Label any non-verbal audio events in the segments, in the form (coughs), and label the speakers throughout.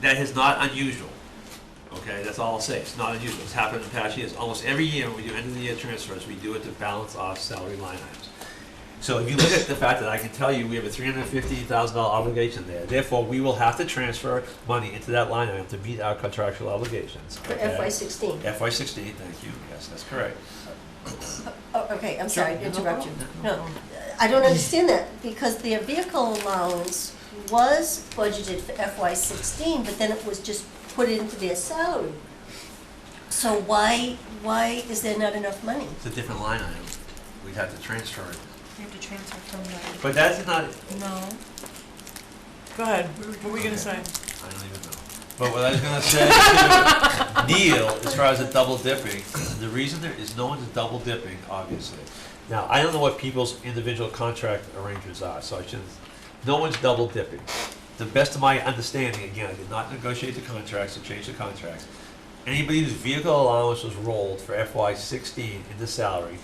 Speaker 1: That is not unusual. Okay, that's all I'll say. It's not unusual. It's happened in past years. Almost every year, when we do end of the year transfers, we do it to balance off salary line items. So if you look at the fact that I can tell you we have a three hundred fifty thousand dollar obligation there, therefore we will have to transfer money into that line item to meet our contractual obligations.
Speaker 2: For
Speaker 1: okay?
Speaker 2: FY sixteen.
Speaker 1: FY sixteen, thank you. Yes, that's correct.
Speaker 2: Oh, okay, I'm sorry to
Speaker 1: Sure.
Speaker 2: interrupt you.
Speaker 1: No
Speaker 2: No,
Speaker 1: (laughs)
Speaker 2: I don't understand that, because their vehicle allowance was budgeted for FY sixteen, but then it was just put into their salary. So why, why is there not enough money?
Speaker 1: It's a different line item. We'd have to transfer it.
Speaker 3: We have to transfer from the,
Speaker 1: But that's not,
Speaker 3: no,
Speaker 4: Go ahead, what were we gonna say?
Speaker 1: I don't even know. But what I was gonna say to (laughs) Neil, as far as the double dipping, the reason there is no one's double dipping, obviously. Now, I don't know what people's individual contract arrangements are, so I shouldn't, no one's double dipping. The best of my understanding, again, I did not negotiate the contracts or change the contracts. Anybody whose vehicle allowance was rolled for FY sixteen into salary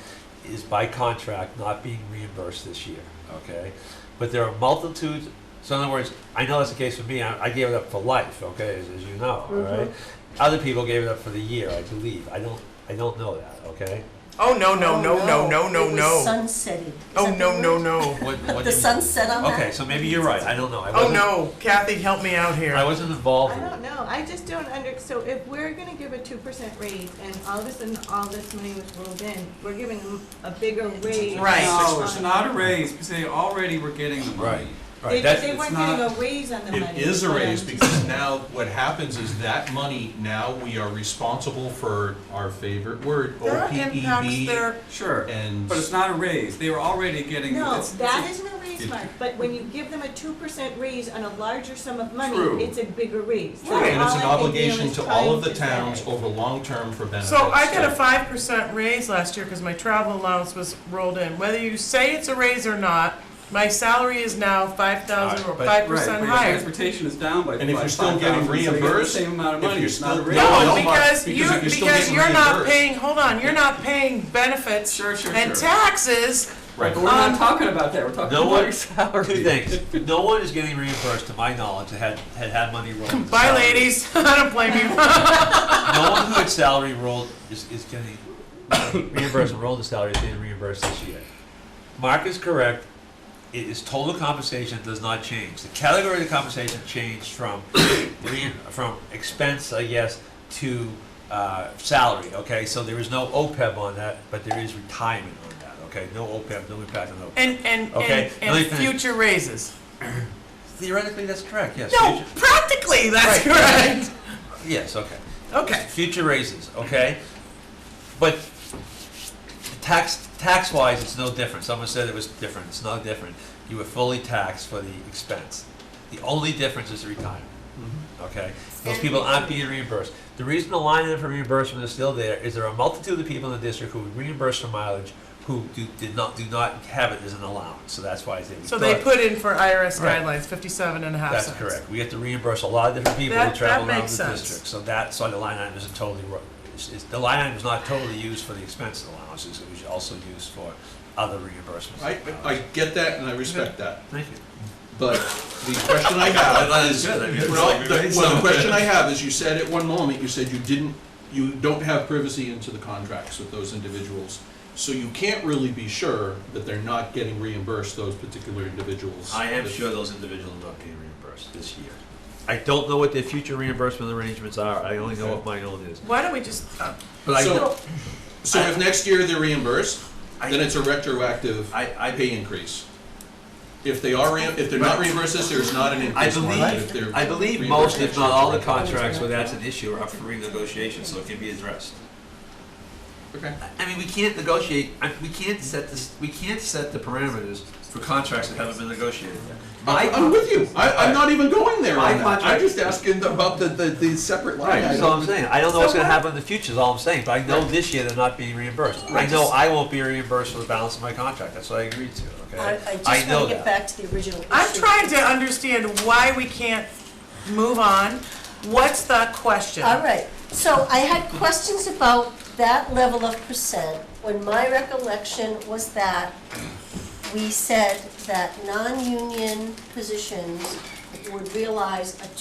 Speaker 1: is by contract not being reimbursed this year, okay? But there are multitudes, so in other words, I know that's the case for me, I, I gave it up for life, okay, as, as you know, all right? Other people gave it up for the year, I believe, I don't, I don't know that, okay?
Speaker 4: Oh, no, no, no, no, no, no,
Speaker 2: It was
Speaker 4: no.
Speaker 2: sunsetted. Is
Speaker 4: Oh,
Speaker 2: that the
Speaker 4: no, no,
Speaker 2: word?
Speaker 4: no.
Speaker 1: What- what do you-
Speaker 2: The sunset on that?
Speaker 1: Okay, so maybe you're right, I don't know, I
Speaker 4: Oh,
Speaker 1: wasn't,
Speaker 4: no, Kathy, help me out
Speaker 1: I
Speaker 4: here.
Speaker 1: wasn't involved
Speaker 5: I
Speaker 1: in it.
Speaker 5: don't know, I just don't under, so if we're gonna give a two percent raise and all of a sudden all this money was rolled in, we're giving them a bigger raise.
Speaker 4: Right.
Speaker 5: Oh.
Speaker 6: No, it's not a raise, because they already were getting the money.
Speaker 5: They,
Speaker 1: Right, that's,
Speaker 5: they weren't
Speaker 6: it's not-
Speaker 5: getting a raise on the
Speaker 7: It
Speaker 5: money.
Speaker 7: is a raise
Speaker 5: and-
Speaker 7: because now what happens is that money, now we are responsible for our favorite word,
Speaker 4: That impacts
Speaker 7: OPEB.
Speaker 4: their,
Speaker 6: Sure,
Speaker 7: And-
Speaker 6: but it's not a raise, they were already getting.
Speaker 5: No,
Speaker 6: it's-
Speaker 5: that
Speaker 6: it's-
Speaker 5: isn't a raise,
Speaker 7: it-
Speaker 5: Mark, but when you give them a two percent raise on a larger sum of
Speaker 6: True.
Speaker 5: money, it's a bigger raise. That's
Speaker 7: And it's
Speaker 5: all
Speaker 7: an
Speaker 5: I can do
Speaker 7: obligation
Speaker 5: is
Speaker 7: to
Speaker 5: trying
Speaker 7: all of the
Speaker 5: to say.
Speaker 7: towns over long-term for benefits.
Speaker 4: so I got a five percent raise last year because my travel allowance was rolled in. Whether you say it's a raise or not, my salary is now five thousand or
Speaker 1: Alright, but-
Speaker 4: five
Speaker 6: Right, but
Speaker 4: percent
Speaker 6: your
Speaker 4: higher.
Speaker 6: transportation is down by
Speaker 7: And if you're
Speaker 6: five,
Speaker 7: still
Speaker 6: five
Speaker 7: getting
Speaker 6: thousand, so you get the
Speaker 7: reimbursed,
Speaker 6: same amount of
Speaker 7: if
Speaker 6: money,
Speaker 7: you're
Speaker 6: it's not a
Speaker 7: still-
Speaker 6: raise.
Speaker 7: No,
Speaker 4: No,
Speaker 7: no, Mark,
Speaker 4: because
Speaker 7: because
Speaker 4: you,
Speaker 7: if you're still
Speaker 4: because
Speaker 7: getting
Speaker 4: you're not
Speaker 7: reimbursed.
Speaker 4: paying, hold on, you're not paying benefits
Speaker 6: Sure, sure,
Speaker 4: and
Speaker 6: sure.
Speaker 4: taxes.
Speaker 6: But we're
Speaker 7: Right,
Speaker 6: not
Speaker 4: Um,
Speaker 6: talking about that, we're talking
Speaker 1: No
Speaker 6: about
Speaker 1: one-
Speaker 6: your salary.
Speaker 1: two things, no one is getting reimbursed, to my knowledge, that had, had had money rolled. into
Speaker 4: Bye,
Speaker 1: salary.
Speaker 4: ladies, (laughs) I don't blame you.
Speaker 1: No one who had salary rolled is, is getting reimbursed (coughs) and rolled the salary is getting reimbursed this year. Mark is correct. It is total compensation does not change. The category of compensation changed from (coughs) re- from expense, I guess, to uh, salary. Okay, so there is no OPEB on that, but there is retirement on that. Okay, no OPEB, no impact on E OPEB.
Speaker 4: And, and,
Speaker 1: Okay,
Speaker 4: and,
Speaker 1: let me
Speaker 4: and
Speaker 1: finish.
Speaker 4: future raises.
Speaker 1: Theoretically, that's correct. Yes.
Speaker 4: No,
Speaker 1: future-
Speaker 4: practically, that's correct.
Speaker 1: Yes. Okay.
Speaker 4: Okay.
Speaker 1: future raises, okay? But tax, tax-wise, it's no different. Someone said it was different. It's not different. You were fully taxed for the expense. The only difference is the retirement,
Speaker 4: Mm-hmm.
Speaker 1: okay? Those people aren't being reimbursed. The reason the line item for reimbursement is still there is there are a multitude of people in the district who reimburse for mileage who do, did not, do not have it as an allowance, so that's why it's there. We
Speaker 4: So they
Speaker 1: thought-
Speaker 4: put in for IRS
Speaker 1: Right.
Speaker 4: guidelines, fifty-seven and a half
Speaker 1: That's
Speaker 4: cents.
Speaker 1: correct. We have to reimburse a lot of different people who
Speaker 4: That-
Speaker 1: travel
Speaker 4: that
Speaker 1: around
Speaker 4: makes
Speaker 1: the
Speaker 4: sense.
Speaker 1: district. So that's why the line item isn't totally, ro- it's- it's- the line item is not totally used for the expense allowances. It was also used for other reimbursements.
Speaker 7: I, I get that and I respect that,
Speaker 1: Thank you.
Speaker 7: but the question
Speaker 1: (laughs)
Speaker 7: I have is,
Speaker 1: good. I mean, it's
Speaker 7: well,
Speaker 1: like
Speaker 7: the,
Speaker 1: everybody's-
Speaker 7: well, the question I have is, you said at one moment, you said you didn't, you don't have privacy into the contracts with those individuals. So you can't really be sure that they're not getting reimbursed, those particular individuals.
Speaker 1: I am
Speaker 7: That-
Speaker 1: sure those individuals are not being reimbursed this year. I don't know what their future reimbursement arrangements are. I only know what my own is.
Speaker 4: Why don't we just,
Speaker 1: But I,
Speaker 7: So, so if next year they're reimbursed,
Speaker 1: I-
Speaker 7: then it's a retroactive
Speaker 1: I- I-
Speaker 7: pay increase. If they are, reim- if they're not reimbursed this year, it's not an
Speaker 1: I
Speaker 7: increase. Mark,
Speaker 1: believe,
Speaker 7: if they're
Speaker 1: I believe most, if
Speaker 7: reimbursed
Speaker 1: not all, the
Speaker 7: next year, it's
Speaker 1: contracts where that's an issue are up for renegotiation, so it can be addressed.
Speaker 7: a retroactive. Okay.
Speaker 1: I mean, we can't negotiate, I- we can't set this, we can't set the parameters for contracts that haven't been negotiated yet.
Speaker 7: I, I'm with you. I, I'm not even going there
Speaker 1: My
Speaker 7: on that.
Speaker 1: contract-
Speaker 7: I'm just asking about the, the, the separate line
Speaker 1: That's all
Speaker 7: item.
Speaker 1: I'm saying, I don't know what's gonna happen in the future, is all I'm saying, but I know this year they're not being reimbursed. I know I won't be reimbursed for the balance of my contract, that's what I agreed to,
Speaker 2: I,
Speaker 1: okay?
Speaker 2: I just
Speaker 1: I know
Speaker 2: wanna get
Speaker 1: that.
Speaker 2: back to the original issue.
Speaker 4: I'm trying to understand why we can't move on. What's the question?
Speaker 2: All right, so I had questions about that level of percent, when my recollection was that we said that non-union positions would realize a